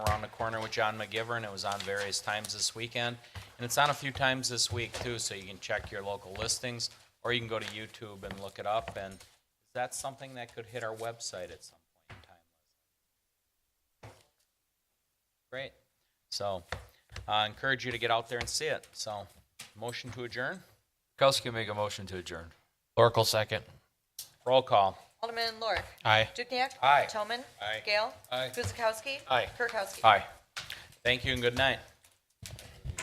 Corner with John McGivern. It was on various times this weekend. And it's on a few times this week too, so you can check your local listings or you can go to YouTube and look it up. And that's something that could hit our website at some point in time. Great. So I encourage you to get out there and see it. So motion to adjourn? Kukowski make a motion to adjourn. Oracle second. Roll call. Alderman Lorik. Aye. Dukniak. Aye. Toman. Aye. Gale. Aye. Guzekowski. Aye. Kirkowski. Aye. Thank you and good night.